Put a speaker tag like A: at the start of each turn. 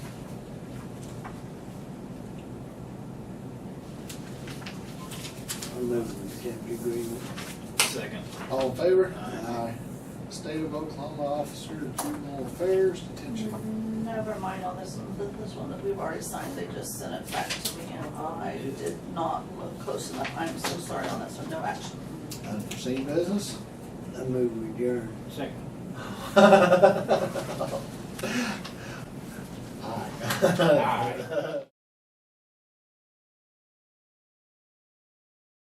A: move the captive agreement.
B: Second.
C: All in favor?
B: Aye.
C: State of Oklahoma Officer of Juvenile Affairs Detention.
D: Mm, Never mind on this one, th- this one that we've already signed, they just sent it back to me, and I did not look close enough, I'm so sorry on this one, no action.
C: Unforeseen business?
A: I move we adjourn.
B: Second.
C: Aye.